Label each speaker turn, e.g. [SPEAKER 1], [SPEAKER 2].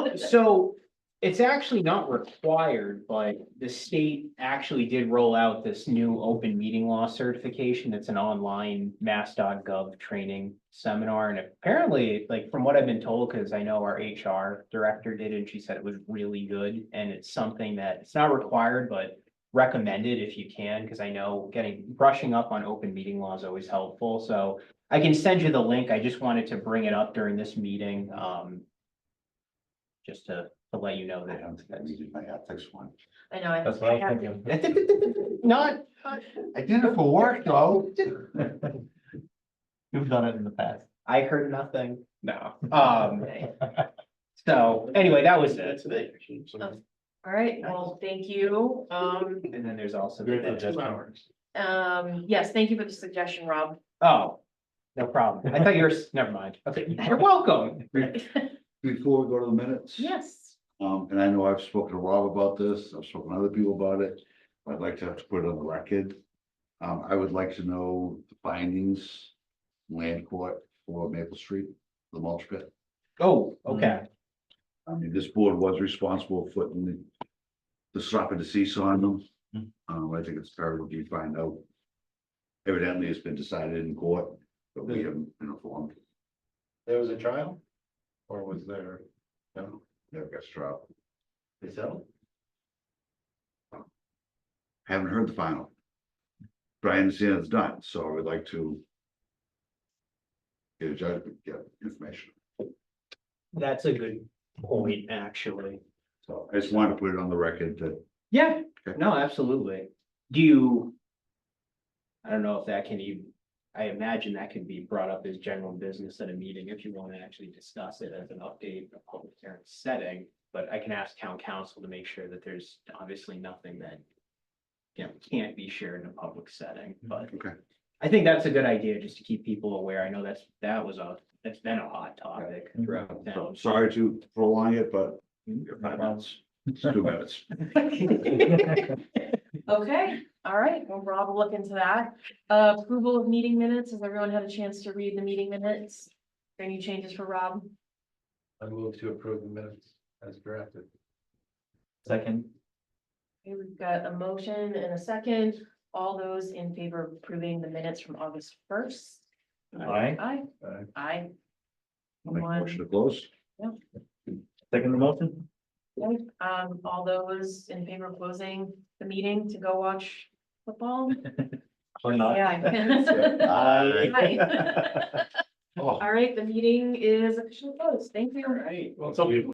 [SPEAKER 1] what is it?
[SPEAKER 2] So it's actually not required, but the state actually did roll out this new open meeting law certification. It's an online mass.gov training seminar. And apparently, like from what I've been told, because I know our HR director did, and she said it was really good. And it's something that it's not required, but recommended if you can, because I know getting brushing up on open meeting law is always helpful. So I can send you the link. I just wanted to bring it up during this meeting. Um, just to, to let you know
[SPEAKER 3] I
[SPEAKER 2] that.
[SPEAKER 3] don't think I needed my ethics one.
[SPEAKER 1] I know, I.
[SPEAKER 4] That's what
[SPEAKER 1] I
[SPEAKER 4] I'm
[SPEAKER 1] have-
[SPEAKER 4] thinking.
[SPEAKER 2] Not,
[SPEAKER 3] I did it for work though.
[SPEAKER 4] You've done it in the past.
[SPEAKER 2] I heard nothing.
[SPEAKER 4] No.
[SPEAKER 2] Um, so anyway, that was it.
[SPEAKER 5] today.
[SPEAKER 1] All right, well, thank you. Um,
[SPEAKER 2] And then there's also.
[SPEAKER 4] Great suggestion.
[SPEAKER 1] um, yes, thank you for the suggestion, Rob.
[SPEAKER 2] Oh, no problem. I thought you were, never mind. Okay, you're welcome.
[SPEAKER 3] Before we go to the minutes.
[SPEAKER 1] Yes.
[SPEAKER 3] Um, and I know I've spoken to Rob about this, I've spoken to other people about it, I'd like to have to put it on the record. Um, I would like to know the findings, land court for Maple Street, the mulch pit.
[SPEAKER 2] Oh, okay.
[SPEAKER 3] I mean, this board was responsible for putting the. The stop and decease on them.
[SPEAKER 4] Hmm.
[SPEAKER 3] Um, I think it's fair what you find out. Evidently, it's been decided in court, but we haven't been informed,
[SPEAKER 5] There was a trial? Or was there, no,
[SPEAKER 3] never got struck,
[SPEAKER 5] they settled?
[SPEAKER 3] haven't heard the final. But I understand it's done, so I would like to. Get a judgment, get information,
[SPEAKER 2] That's a good point, actually.
[SPEAKER 3] so I just wanted to put it on the record that
[SPEAKER 2] Yeah,
[SPEAKER 3] Okay.
[SPEAKER 2] no, absolutely. Do you? I don't know if that can even, I imagine that can be brought up as general business at a meeting if you want to actually discuss it as an update in a public hearing setting. But I can ask town council to make sure that there's obviously nothing that. You know, can't be shared in a public setting, but.
[SPEAKER 3] Okay.
[SPEAKER 2] I think that's a good idea, just to keep people aware. I know that's, that was a, that's been a hot topic throughout
[SPEAKER 3] So
[SPEAKER 2] town.
[SPEAKER 3] I'm sorry to prolong it, but we have five minutes, it's two minutes.
[SPEAKER 1] Okay, all right, well, Rob will look into that. Uh, approval of meeting minutes, has everyone had a chance to read the meeting minutes? Any changes for Rob?
[SPEAKER 5] I moved to approve the minutes as drafted.
[SPEAKER 4] Second.
[SPEAKER 1] Okay, we've got a motion and a second. All those in favor of approving the minutes from August first?
[SPEAKER 4] Aye.
[SPEAKER 1] Aye.
[SPEAKER 5] Aye.
[SPEAKER 1] Aye.
[SPEAKER 3] I'll make a
[SPEAKER 1] One.
[SPEAKER 3] motion to close.
[SPEAKER 4] Second motion?
[SPEAKER 1] Okay, Um, all those in favor of closing the meeting to go watch football?
[SPEAKER 4] Or Uh,
[SPEAKER 1] Yeah.
[SPEAKER 4] Aye.
[SPEAKER 1] Oh. Aye. All right, the meeting is officially closed. Thank you.
[SPEAKER 2] Right,
[SPEAKER 5] Well, it's up to you.